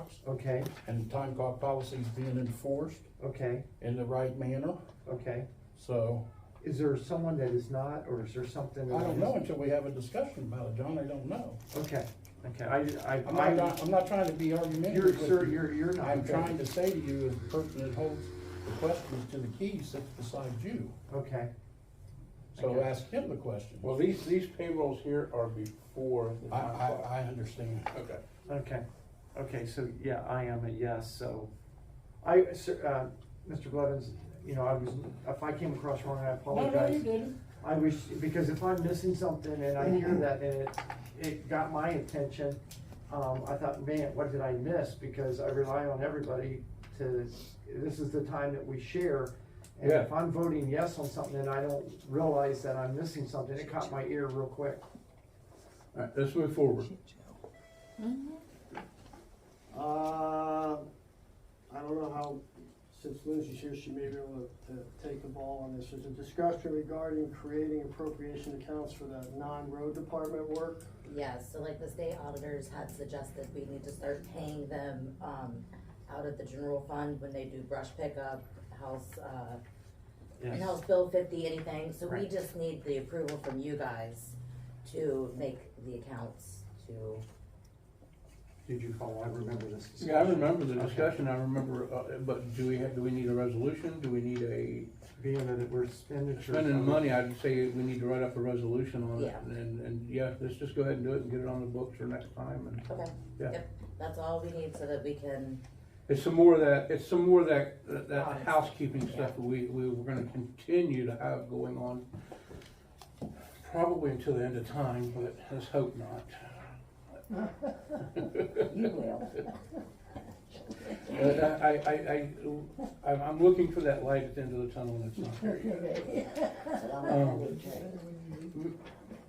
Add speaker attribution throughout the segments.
Speaker 1: cops
Speaker 2: Okay,
Speaker 1: and time clock policies being enforced
Speaker 2: okay,
Speaker 1: in the right manner.
Speaker 2: okay.
Speaker 1: So
Speaker 2: Is there someone that is not, or is there something? that
Speaker 1: I don't
Speaker 2: is-
Speaker 1: know until we have a discussion about it, John. I don't know.
Speaker 2: Okay, okay, I,
Speaker 1: I'm
Speaker 2: I,
Speaker 1: not,
Speaker 2: I,
Speaker 1: try- I'm not trying to be argumentative
Speaker 2: you're,
Speaker 1: with
Speaker 2: sir,
Speaker 1: you.
Speaker 2: you're, you're not.
Speaker 1: I'm trying to say to you, as the person that holds the questions to the key sits beside you.
Speaker 2: Okay,
Speaker 1: So
Speaker 2: Okay.
Speaker 1: ask him the question.
Speaker 3: Well, these, these payrolls here are before the
Speaker 1: I,
Speaker 3: time
Speaker 1: I,
Speaker 3: clock.
Speaker 1: I understand.
Speaker 3: Okay.
Speaker 2: okay, okay, so, yeah, I am a yes, so. I, sir, uh, Mr. Blevins, you know, I was, if I came across wrong, I
Speaker 1: No, no,
Speaker 2: apologize.
Speaker 1: you didn't.
Speaker 2: I wish, because if I'm missing something and I hear that and it, it got my attention, um, I thought, man, what did I miss? Because I rely on everybody to, this is the time that we share. And if
Speaker 3: Yeah.
Speaker 2: I'm voting yes on something and I don't realize that I'm missing something, it caught my ear real quick.
Speaker 3: All right, let's move forward.
Speaker 4: Uh, I don't know how, since Lindsay's here, she may be able to, to take the ball on this. There's a discussion regarding creating appropriation accounts for that non-road department work.
Speaker 5: Yes, so like the state auditors had suggested we need to start paying them, um, out of the general fund when they do brush pickup, house, uh, and house bill fifty, anything, so we
Speaker 2: Right.
Speaker 5: just need the approval from you guys to make the accounts to,
Speaker 2: Did you follow? I remember this.
Speaker 3: Yeah, I
Speaker 2: discussion.
Speaker 3: remember the
Speaker 2: Okay.
Speaker 3: discussion, I remember, uh, but do we have, do we need a resolution? Do we need a,
Speaker 2: Being that it- we're spending.
Speaker 3: spending money, I'd say we need to write up a resolution on it.
Speaker 5: Yeah.
Speaker 3: And, and, yeah, let's just go ahead and do it and get it on the books for next time and.
Speaker 5: okay.
Speaker 3: Yeah.
Speaker 5: Yep, That's all we need so that we can,
Speaker 3: It's some more of that, it's some more of that, that- that
Speaker 5: Honest.
Speaker 3: housekeeping stuff that we, we were gonna continue to have going on. Probably until the end of time, but let's hope not.
Speaker 6: You will.
Speaker 3: But I, I, I- I, I'm, I'm looking for that light at the end of the tunnel and it's not there yet.
Speaker 1: Um,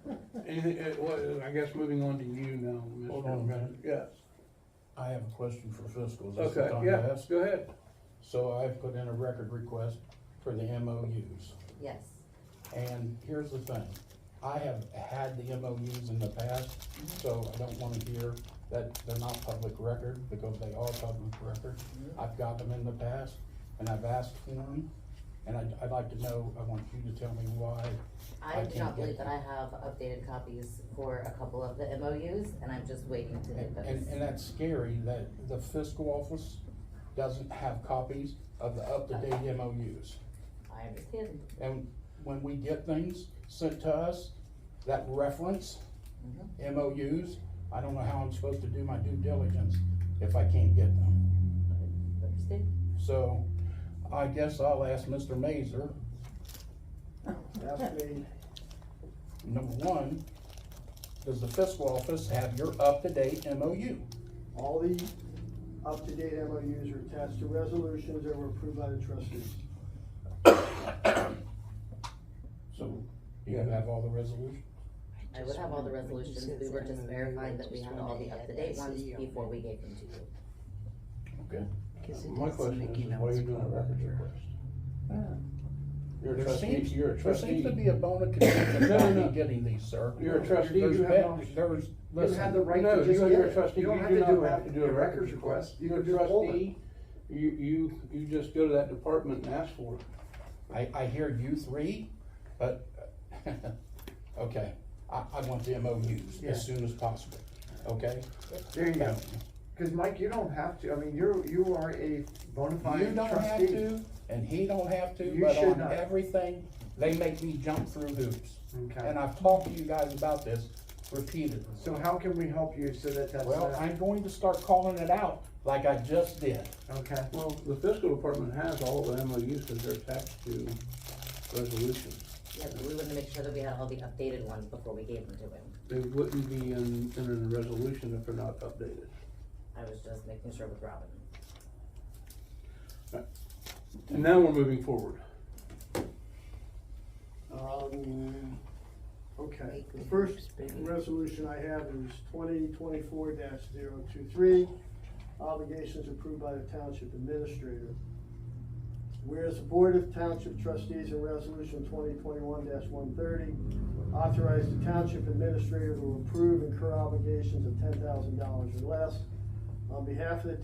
Speaker 6: Well,
Speaker 3: Anything, uh, well, I guess moving on to you now, Mr.
Speaker 1: Hold on a minute.
Speaker 3: Yes,
Speaker 1: I have a question for fiscal. Is this the
Speaker 3: okay,
Speaker 1: time to
Speaker 3: yeah,
Speaker 1: ask?
Speaker 3: go ahead.
Speaker 1: So I've put in a record request for the MOUs.
Speaker 5: yes,
Speaker 1: And here's the thing, I have had the MOUs in the past, so I don't wanna hear that they're not public record, because they are public record. I've got them in the past, and I've asked for them, and I'd, I'd like to know, I want you to tell me why.
Speaker 5: I do
Speaker 1: can't get
Speaker 5: not believe that I
Speaker 1: them.
Speaker 5: have updated copies for a couple of the MOUs, and I'm just waiting to get
Speaker 1: And, and, and
Speaker 5: those.
Speaker 1: that's scary, that the fiscal office doesn't have copies of the up-to-date MOUs.
Speaker 5: I understand,
Speaker 1: And when we get things sent to us, that reference,
Speaker 2: Mm-hmm.
Speaker 1: MOUs, I don't know how I'm supposed to do my due diligence if I can't get them.
Speaker 5: understand.
Speaker 1: So I guess I'll ask Mr. Mazer,
Speaker 4: Ask me,
Speaker 1: number one, does the fiscal office have your up-to-date MOU?
Speaker 4: all the up-to-date MOUs are attached to resolutions that were approved by the trustees.
Speaker 1: So you have all the resolutions?
Speaker 5: I would have all the resolutions, we were just verifying that we had all the up-to-date ones before we gave them to you.
Speaker 1: Okay.
Speaker 3: My question is, is why are you doing a records request? You're a
Speaker 1: There
Speaker 3: trustee,
Speaker 1: seems,
Speaker 3: you're a
Speaker 1: there seems
Speaker 3: trustee.
Speaker 1: to be a bone of contention
Speaker 3: No,
Speaker 1: about
Speaker 3: no,
Speaker 1: me
Speaker 3: no.
Speaker 1: getting these, sir.
Speaker 3: You're a trustee,
Speaker 1: There's
Speaker 3: you
Speaker 2: have
Speaker 1: been- There's,
Speaker 2: You have the
Speaker 1: listen,
Speaker 2: right
Speaker 3: No,
Speaker 2: to just
Speaker 3: you-
Speaker 2: get
Speaker 3: you're a
Speaker 2: it.
Speaker 3: trustee.
Speaker 2: You don't
Speaker 3: You
Speaker 2: have
Speaker 3: do
Speaker 2: to
Speaker 3: not
Speaker 2: do
Speaker 3: have to do a records
Speaker 2: request. You
Speaker 3: You're
Speaker 2: can
Speaker 3: a
Speaker 2: just hold it.
Speaker 3: trustee, you, you, you just go to that department and ask for it.
Speaker 1: I, I hear you three, but, okay, I, I want the MOUs
Speaker 2: Yeah.
Speaker 1: as soon as possible, okay?
Speaker 2: There you go. Cause Mike, you don't have to, I mean, you're, you are a bona
Speaker 1: You
Speaker 2: fide
Speaker 1: don't have
Speaker 2: trustee.
Speaker 1: to, and he don't have to,
Speaker 2: You
Speaker 1: but
Speaker 2: should
Speaker 1: on
Speaker 2: not.
Speaker 1: everything, they make me jump through hoops.
Speaker 2: Okay.
Speaker 1: And I've talked to you guys about this repeatedly.
Speaker 2: So how can we help you so that that's
Speaker 1: Well,
Speaker 2: not,
Speaker 1: I'm going to start calling it out like I just did.
Speaker 2: okay?
Speaker 3: Well, the fiscal department has all the MOUs because they're attached to resolutions.
Speaker 5: Yeah, but we wanted to make sure that we had all the updated ones before we gave them to him.
Speaker 3: They wouldn't be in, in a resolution if they're not updated.
Speaker 5: I was just making sure with Robin.
Speaker 3: And now we're moving forward.
Speaker 4: Um, okay, the first resolution I have is twenty twenty-four 23 obligations approved by the township administrator. Whereas the Board of Township Trustees in Resolution twenty twenty-one one thirty authorized the township administrator to approve and incur obligations of ten thousand dollars or less on behalf of the